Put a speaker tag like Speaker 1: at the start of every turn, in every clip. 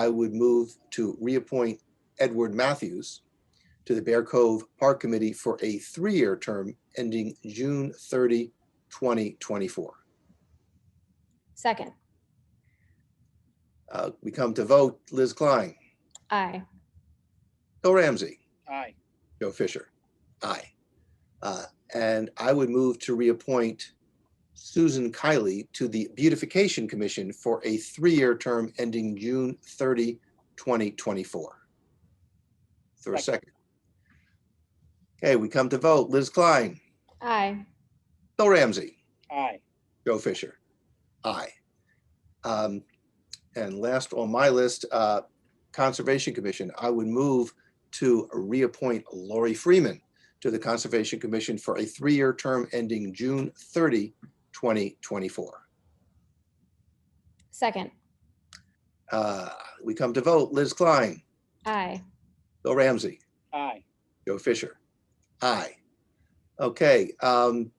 Speaker 1: I would move to reappoint Edward Matthews to the Bear Cove Park Committee for a three-year term ending June 30, 2024.
Speaker 2: Second,
Speaker 1: Uh, We come to vote. Liz Klein,
Speaker 2: aye.
Speaker 1: Bill Ramsey,
Speaker 3: aye,
Speaker 1: Joe Fisher. Aye. Uh, And I would move to reappoint Susan Kiley to the Beautification Commission for a three-year term ending June 30, 2024. Is there a second? Okay, we come to vote. Liz Klein,
Speaker 2: Aye.
Speaker 1: Bill Ramsey,
Speaker 3: aye,
Speaker 1: Joe Fisher. Aye. Um, And last on my list, uh, Conservation Commission, I would move to reappoint Lori Freeman to the Conservation Commission for a three-year term ending June 30, 2024.
Speaker 2: Second,
Speaker 1: Uh, We come to vote. Liz Klein,
Speaker 2: aye.
Speaker 1: Bill Ramsey,
Speaker 3: aye.
Speaker 1: Joe Fisher. Aye. Okay, um,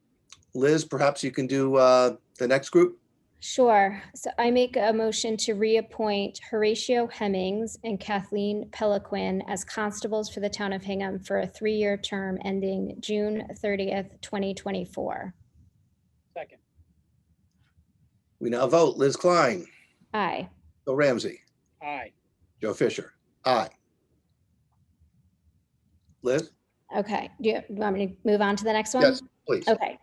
Speaker 1: Liz, perhaps you can do uh, the next group?
Speaker 2: Sure. So I make a motion to reappoint Horatio Hemmings and Kathleen Peliquin as constables for the town of Hingham for a three-year term ending June 30th, 2024.
Speaker 3: Second,
Speaker 1: We now vote. Liz Klein,
Speaker 2: Aye.
Speaker 1: Bill Ramsey.
Speaker 3: aye,
Speaker 1: Joe Fisher, aye. Liz?
Speaker 2: Okay, do you do you want me to move on to the next one?
Speaker 1: Yes, please.
Speaker 2: Okay.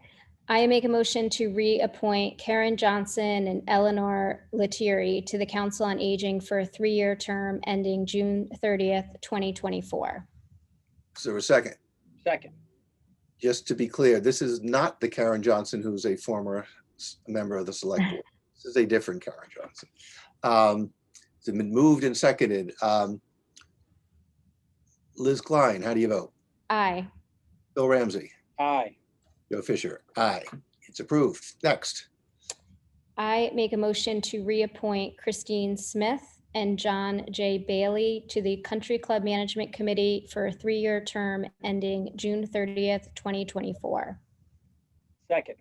Speaker 2: I make a motion to reappoint Karen Johnson and Eleanor Letieri to the Council on Aging for a three-year term ending June 30th, 2024.
Speaker 1: Is there a second?
Speaker 3: second,
Speaker 1: Just to be clear, this is not the Karen Johnson who's a former s- member of the select board. This is a different Karen Johnson. Um, It's been moved and seconded. Um, Liz Klein, how do you vote?
Speaker 2: Aye.
Speaker 1: Bill Ramsey,
Speaker 3: aye,
Speaker 1: Joe Fisher, aye. It's approved. Next.
Speaker 2: I make a motion to reappoint Christine Smith and John J. Bailey to the Country Club Management Committee for a three-year term ending June 30th, 2024.
Speaker 3: second,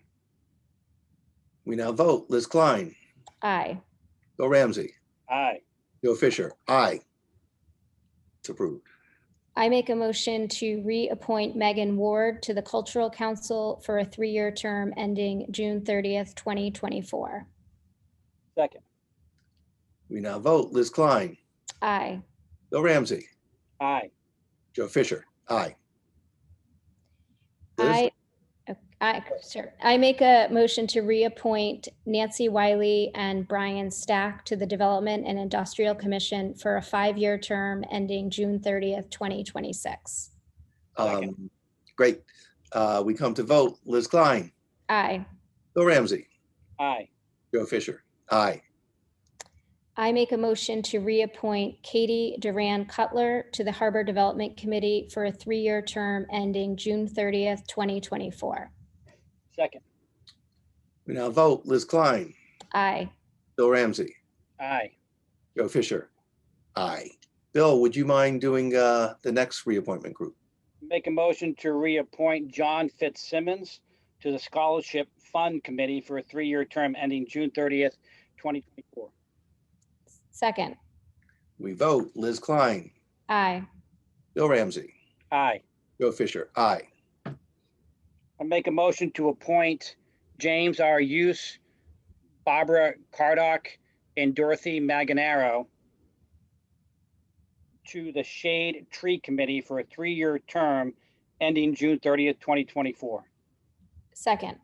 Speaker 1: We now vote. Liz Klein,
Speaker 2: Aye.
Speaker 1: Bill Ramsey,
Speaker 3: aye,
Speaker 1: Joe Fisher, aye. It's approved.
Speaker 2: I make a motion to reappoint Megan Ward to the Cultural Council for a three-year term ending June 30th, 2024.
Speaker 3: second,
Speaker 1: We now vote. Liz Klein,
Speaker 2: Aye.
Speaker 1: Bill Ramsey,
Speaker 3: aye,
Speaker 1: Joe Fisher, aye. Liz?
Speaker 2: I, I, sure. I make a motion to reappoint Nancy Wiley and Brian Stack to the Development and Industrial Commission for a five-year term ending June 30th, 2026.
Speaker 3: Second.
Speaker 1: Um, Great. Uh, We come to vote. Liz Klein,
Speaker 2: Aye.
Speaker 1: Bill Ramsey,
Speaker 3: aye,
Speaker 1: Joe Fisher, aye.
Speaker 2: I make a motion to reappoint Katie Duran Cutler to the Harbor Development Committee for a three-year term ending June 30th, 2024.
Speaker 3: second,
Speaker 1: We now vote. Liz Klein,
Speaker 2: Aye.
Speaker 1: Bill Ramsey,
Speaker 3: aye.
Speaker 1: Joe Fisher, aye. Bill, would you mind doing uh, the next reappointment group?
Speaker 3: Make a motion to reappoint John Fitzsimmons to the Scholarship Fund Committee for a three-year term ending June thirtieth, twenty twenty-four.
Speaker 2: Second.
Speaker 1: We vote. Liz Klein,
Speaker 2: Aye.
Speaker 1: Bill Ramsey,
Speaker 3: Aye.
Speaker 1: Joe Fisher, aye.
Speaker 3: I make a motion to appoint James R. Use, Barbara Cardock, and Dorothy Maganaro to the Shade Tree Committee for a three-year term ending June thirtieth, twenty twenty-four.
Speaker 2: Second.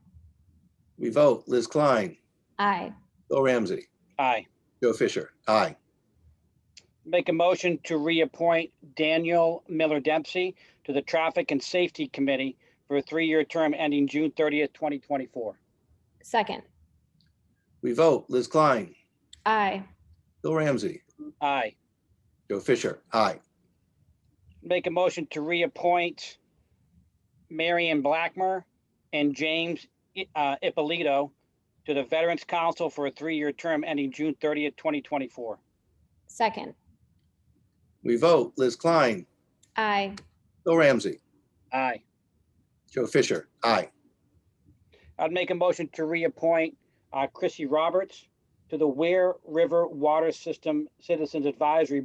Speaker 1: We vote. Liz Klein,
Speaker 2: Aye.
Speaker 1: Bill Ramsey,
Speaker 3: Aye.
Speaker 1: Joe Fisher, aye.
Speaker 3: Make a motion to reappoint Daniel Miller Dempsey to the Traffic and Safety Committee for a three-year term ending June thirtieth, twenty twenty-four.
Speaker 2: Second.
Speaker 1: We vote. Liz Klein,
Speaker 2: Aye.
Speaker 1: Bill Ramsey,
Speaker 3: Aye.
Speaker 1: Joe Fisher, aye.
Speaker 3: Make a motion to reappoint Marion Blackmer and James uh, Ippolito to the Veterans Council for a three-year term ending June thirtieth, twenty twenty-four.
Speaker 2: Second.
Speaker 1: We vote. Liz Klein,
Speaker 2: Aye.
Speaker 1: Bill Ramsey,
Speaker 3: Aye.
Speaker 1: Joe Fisher, aye.
Speaker 3: I'd make a motion to reappoint uh, Chrissy Roberts to the Ware River Water System Citizens Advisory